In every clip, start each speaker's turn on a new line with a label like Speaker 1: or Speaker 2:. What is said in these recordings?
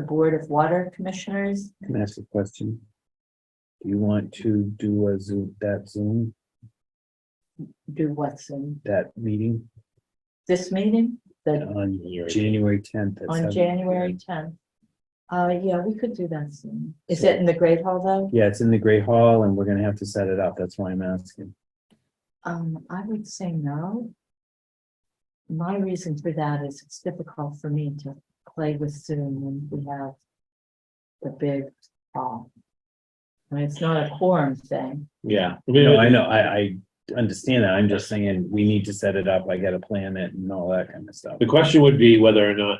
Speaker 1: Board of Water Commissioners.
Speaker 2: Can I ask a question? Do you want to do a Zoom, that Zoom,
Speaker 1: Do what's in
Speaker 2: that meeting
Speaker 1: this meeting, the,
Speaker 2: on January tenth?
Speaker 1: on January tenth? Uh, yeah, we could do that soon. Is it in the Great Hall though?
Speaker 2: Yeah, it's in the Great Hall and we're gonna have to set it up. That's why I'm asking.
Speaker 1: Um, I would say no. My reason for that is it's difficult for me to play with Zoom when we have the big hall. And it's not a quorum thing.
Speaker 2: Yeah. No, I know, I, I understand that. I'm just saying, we need to set it up. I gotta plan it and all that kind of stuff.
Speaker 3: The question would be whether or not.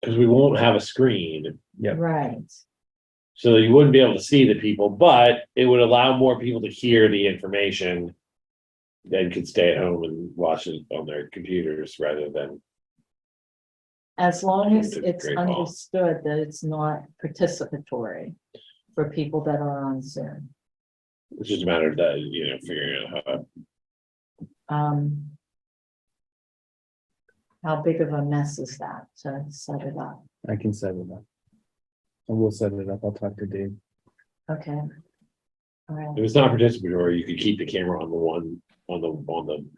Speaker 3: Because we won't have a screen,
Speaker 2: Yep.
Speaker 1: Right.
Speaker 3: so you wouldn't be able to see the people, but it would allow more people to hear the information. Than could stay at home and watch it on their computers rather than,
Speaker 1: As long as
Speaker 3: Into the
Speaker 1: it's
Speaker 3: Great Hall.
Speaker 1: understood that it's not participatory for people that are on Zoom.
Speaker 3: it's just a matter of that, you know, figuring out how.
Speaker 1: Um. How big of a mess is that to set it up?
Speaker 2: I can set it up. And we'll set it up. I'll talk to Dave.
Speaker 1: Okay. All right,
Speaker 3: If it's not participatory, you could keep the camera on the one, on the, on the,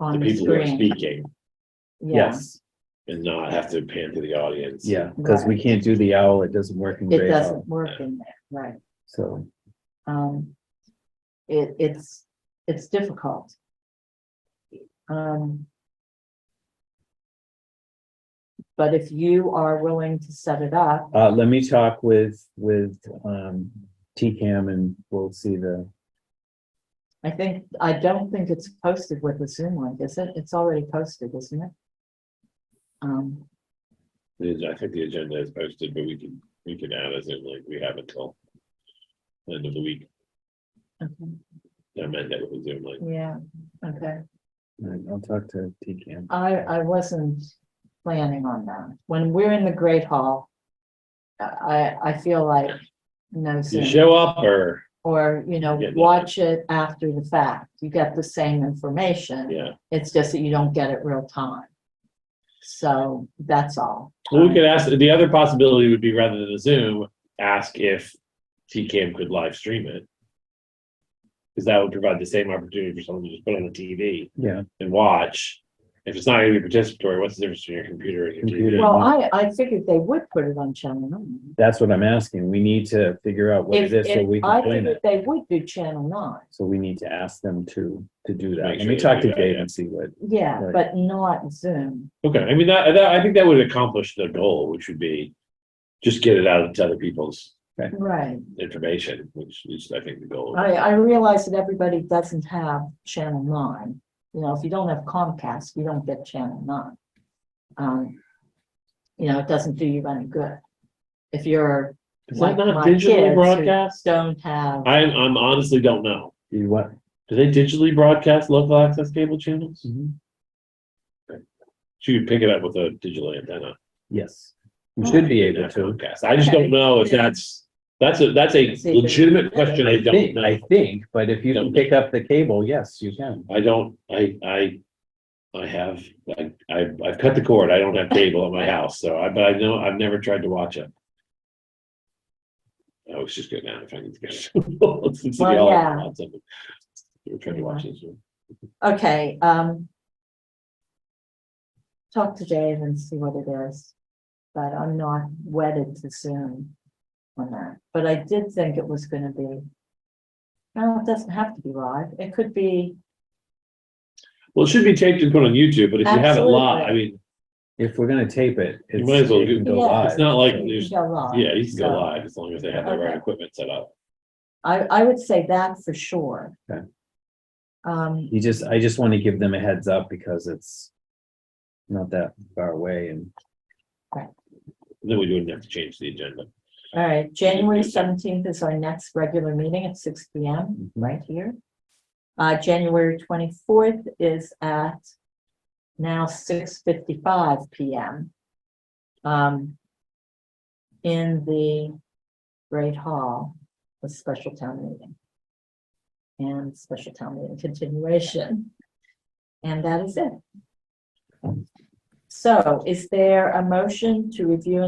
Speaker 1: on
Speaker 3: the
Speaker 1: the
Speaker 3: people who are
Speaker 1: screen,
Speaker 3: speaking.
Speaker 1: yeah,
Speaker 2: Yes,
Speaker 3: And not have to pan to the audience.
Speaker 2: yeah, because we can't do the owl. It doesn't work in
Speaker 1: it
Speaker 2: Great
Speaker 1: doesn't
Speaker 2: Hall.
Speaker 1: work in there, right,
Speaker 2: So,
Speaker 1: um. It, it's, it's difficult. Um. But if you are willing to set it up,
Speaker 2: uh, let me talk with, with, um, TCAM and we'll see the,
Speaker 1: I think, I don't think it's posted with the Zoom link, is it? It's already posted, isn't it? Um,
Speaker 3: The- I think the agenda is posted, but we can, we can add as in like we have until. End of the week,
Speaker 1: okay,
Speaker 3: I meant that with Zoom, like,
Speaker 1: yeah, okay.
Speaker 2: I'll talk to TCAM.
Speaker 1: I, I wasn't planning on that. When we're in the Great Hall, I, I feel like no
Speaker 3: you
Speaker 1: Zoom,
Speaker 3: show up or,
Speaker 1: or, you know,
Speaker 3: Yeah, no.
Speaker 1: watch it after the fact. You get the same information.
Speaker 3: yeah,
Speaker 1: It's just that you don't get it real time. So that's all.
Speaker 3: Well, we could ask, the other possibility would be rather than a Zoom, ask if. TCAM could live stream it. Cause that would provide the same opportunity for someone to just put on the TV
Speaker 2: Yeah,
Speaker 3: and watch. If it's not gonna be participatory, what's the difference between your computer and your
Speaker 2: Computer.
Speaker 3: TV?
Speaker 1: Well, I, I figured they would put it on channel nine.
Speaker 2: that's what I'm asking. We need to figure out what
Speaker 1: If,
Speaker 2: it is so we
Speaker 1: if, I
Speaker 2: can plan
Speaker 1: think
Speaker 2: it.
Speaker 1: they would do channel nine,
Speaker 2: So we need to ask them to, to do that.
Speaker 3: Make
Speaker 2: Let me
Speaker 3: sure they
Speaker 2: talk to
Speaker 3: do that,
Speaker 2: Dave
Speaker 3: yeah.
Speaker 2: and see what,
Speaker 1: yeah,
Speaker 2: Right.
Speaker 1: but not Zoom.
Speaker 3: Okay, I mean, that, that, I think that would accomplish the goal, which would be. Just get it out to other people's
Speaker 1: Right.
Speaker 3: information, which is, I think, the goal.
Speaker 1: I, I realize that everybody doesn't have channel nine. You know, if you don't have Comcast, you don't get channel nine. Um, you know, it doesn't do you any good. If you're
Speaker 3: Is that
Speaker 1: like
Speaker 3: not
Speaker 1: my kids
Speaker 3: digitally broadcast?
Speaker 1: who don't have,
Speaker 3: I, I'm honestly don't know.
Speaker 2: you what?
Speaker 3: Do they digitally broadcast local access cable channels? She would pick it up with a digital antenna.
Speaker 2: Yes, you should be able
Speaker 3: not
Speaker 2: to.
Speaker 3: Comcast. I just don't know if that's, that's a, that's a
Speaker 1: It's a-
Speaker 3: legitimate question. I
Speaker 2: I
Speaker 3: don't
Speaker 2: think, I
Speaker 3: know.
Speaker 2: think, but if you can
Speaker 3: Don't
Speaker 2: pick up the cable, yes, you can.
Speaker 3: I don't, I, I, I have, I, I, I've cut the cord. I don't have cable at my house, so I, but I know, I've never tried to watch it. I was just getting out if I can get.
Speaker 1: Well, yeah.
Speaker 3: We're trying to watch this one.
Speaker 1: okay, um. Talk to Dave and see what it is, but I'm not wedded to Zoom on that. But I did think it was gonna be. No, it doesn't have to be live. It could be,
Speaker 3: Well, it should be taped and put on YouTube, but if you have it live, I
Speaker 1: Absolutely.
Speaker 3: mean,
Speaker 2: If we're gonna tape it.
Speaker 3: You
Speaker 2: it's-
Speaker 3: might as well
Speaker 2: it
Speaker 3: do-
Speaker 2: can go
Speaker 1: Yeah.
Speaker 2: live.
Speaker 3: it's not like
Speaker 1: you
Speaker 3: there's,
Speaker 1: can go live.
Speaker 3: yeah, you can go
Speaker 1: so.
Speaker 3: live as long as they have the right
Speaker 1: Okay.
Speaker 3: equipment set up.
Speaker 1: I, I would say that for sure.
Speaker 2: Okay.
Speaker 1: Um,
Speaker 2: You just, I just want to give them a heads up because it's not that far away and
Speaker 3: Then we wouldn't have to change the agenda.
Speaker 1: all right, January seventeenth is our next regular meeting at six P M,
Speaker 2: Mhm.
Speaker 1: right here. Uh, January twenty-fourth is at now six fifty-five P M. Um, in the Great Hall, the special town meeting. And special town meeting continuation. And that is it. So is there a motion to review